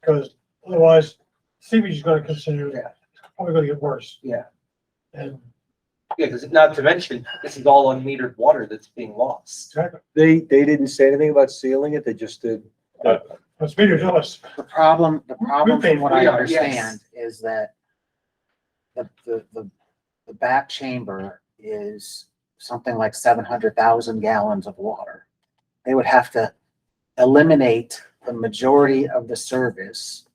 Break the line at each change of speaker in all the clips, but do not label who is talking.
Because otherwise, seepage is gonna continue,
Yeah.
it's probably gonna get worse.
Yeah.
And,
Yeah, because not to mention, this is all unmetered water that's being lost.
exactly,
They, they didn't say anything about sealing it, they just did.
that's me to tell us,
The problem, the problem
paid
from what I
for it, yes.
understand is that the, the, the, the back chamber is something like seven hundred thousand gallons of water. They would have to eliminate the majority of the service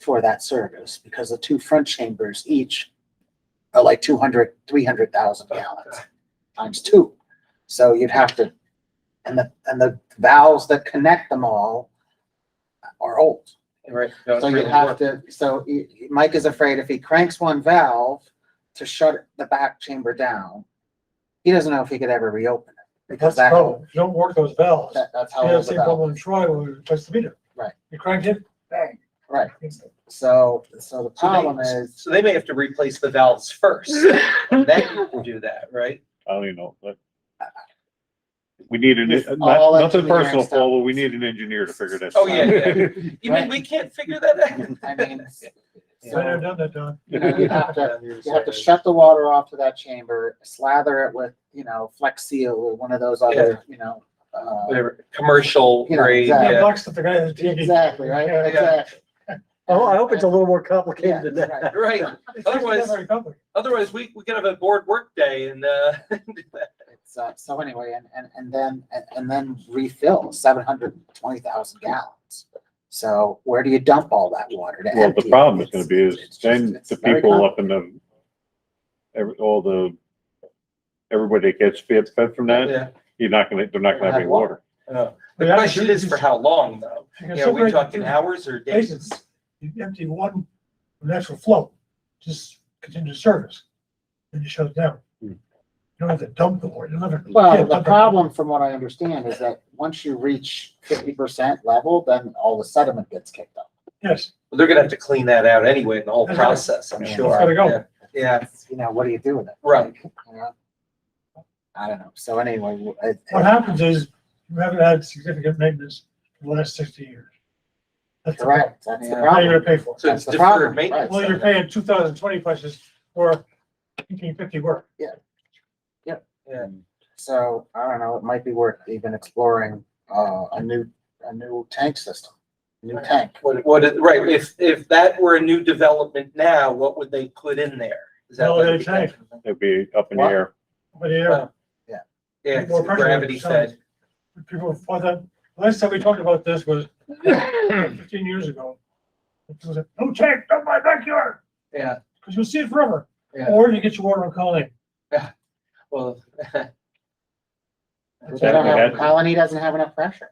for that service because the two front chambers each are like 200, 300,000 gallons times two. So you'd have to, and the, and the valves that connect them all are old.
Right.
So you have to, so y- y- Mike is afraid if he cranks one valve to shut the back chamber down, he doesn't know if he could ever reopen it because
that's the
that,
problem, if you don't work those valves,
that- that's how
you have the
old the
same
valve.
problem in Troy when we replaced the meter.
Right.
You cranked it, bang.
Right. So, so the problem is,
So they may have to replace the valves first, and then you can do that, right?
I don't even know, but. We need an,
If all
not, nothing
engineering
personal,
stuff-
Paul, but we need an engineer to figure this out.
Oh, yeah, You mean, we can't figure that
I mean,
So I've
so,
done that, Don.
you know, you have to,
out?
you have to shut the water off to that chamber, slather it with, you know, Flex Seal or one of those other, you know, uh,
Whatever, commercial
You know,
grade,
exactly.
Yeah,
yeah.
Bucks at the guy that's digging.
exactly, right?
Yeah.
Exactly.
Oh, I hope it's a little more
Yeah,
complicated than
right.
that.
Right,
It's actually not
Otherwise-
very complicated.
otherwise we, we could have a board work day and, uh,
It's, uh, so anyway, and, and, and then, and- and then refill seven hundred twenty thousand gallons. So where do you dump all that water to
Well,
empty?
the
it?
problem is gonna
It's-
be
it's
is
just-
then
it's
the
very
people up in the, every, all the, everybody that gets fed, fed from that,
yeah.
you're not gonna, they're not gonna have any water.
Uh,
But
The
that
question is for how long though?
you can
You know, we're
separate the
talking
two
hours or days?
Basins, you empty one natural flow, just continue to service, then you shut it down.
Hmm.
You don't have to dump the water, you don't have to. yeah,
Well, the
dump it.
problem from what I understand is that once you reach fifty percent level, then all the sediment gets kicked up.
Yes,
They're gonna have to clean that out anyway in the whole
That's right.
process, I'm
Yeah.
sure.
It's gotta go.
Yeah. Yeah,
You know, what do you do with it?
Right.
You know? I don't know. So anyway, w- it-
what happens is you haven't had significant maintenance in the last sixty years. That's the problem.
correct, that's the
Yeah.
Now you're
problem.
gonna pay for
so it's
That's the problem,
deferred
right.
maintenance.
Well, you're paying two thousand twenty prices for eighteen fifty work.
Yeah.
So I don't know, it might be worth even exploring, uh, a new, a new tank system, new
Right.
tank.
What, what, it- right, if, if that were a new development now, what would they put in there? Is that
No,
what
they
it would
change.
be?
It'd be up in the
What?
air.
But yeah,
Yeah, it's
More pressure on
gravity
yourself.
fed.
people, for that, last time we talked about this was fifteen years ago. It was like, no tank, not my backyard,
Yeah,
because you'll see it forever,
Yeah.
or you get your water on Colony.
well,
But
Yeah,
They don't
we
have,
had-
Colony doesn't have enough pressure.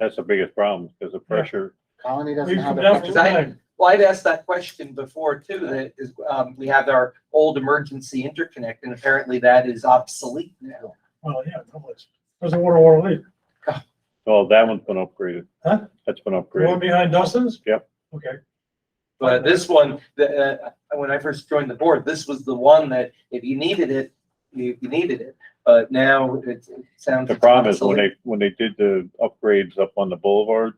That's the biggest problem, because the pressure,
Colony doesn't
We've
have.
come
the
down from
pressure.
nine.
well, I'd asked that question before too, that is, um, we have our old emergency interconnect and apparently that is obsolete now.
Well, yeah, it was, there's a water, water leak.
oh, that one's been upgraded.
Huh?
That's been
The one
upgraded.
behind Dustin's?
Yep.
Okay,
But this one, the, uh, when I first joined the board, this was the one that if you needed it, you you needed it. But now it it sounds.
The problem is when they, when they did the upgrades up on the boulevard,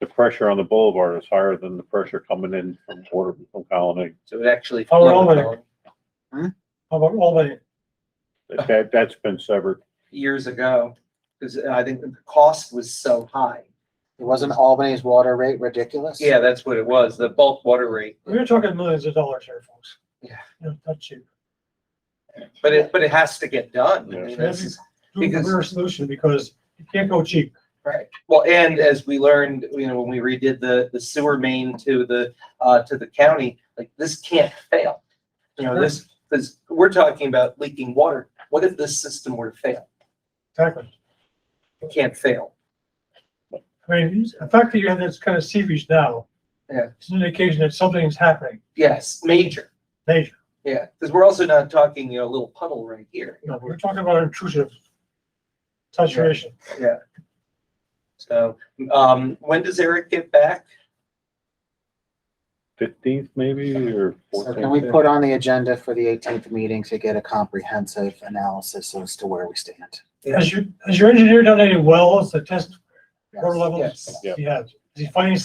the pressure on the boulevard is higher than the pressure coming in from water from Colony.
So it actually.
How long are how about Albany?
That- That, that's been severed.
years ago, because I think the cost was so high.
It wasn't Albany's water rate ridiculous?
Yeah, that's what it was, the bulk water rate,
We're talking millions of dollars here, folks.
Yeah.
Not not cheap.
but it, but it has to get done. I
Yeah.
mean, that's-
Do the
Because-
reverse solution because you can't go cheap.
Right, well, and as we learned, you know, when we redid the, the sewer main to the, uh, to the county, like, this can't fail. You know, this, because we're talking about leaking water, what if this system were to fail?
Exactly.
It can't fail.
I mean, the fact that you have this kind of seepage now.
Yeah.
It's an indication that something's happening,
Yes, major,
major.
yeah, because we're also not talking, you know, a little puddle right here,
You know, we're talking about intrusive saturation.
so, um, when does Eric get back?
Fifteenth maybe or
So
fourteenth?
can we put on the agenda for the eighteenth meeting to get a comprehensive analysis as to where we stand?
Yeah.
Has your, has your engineer done any wells to test
Yes.
water levels?
Yes.
Yeah.
He has. Is he finding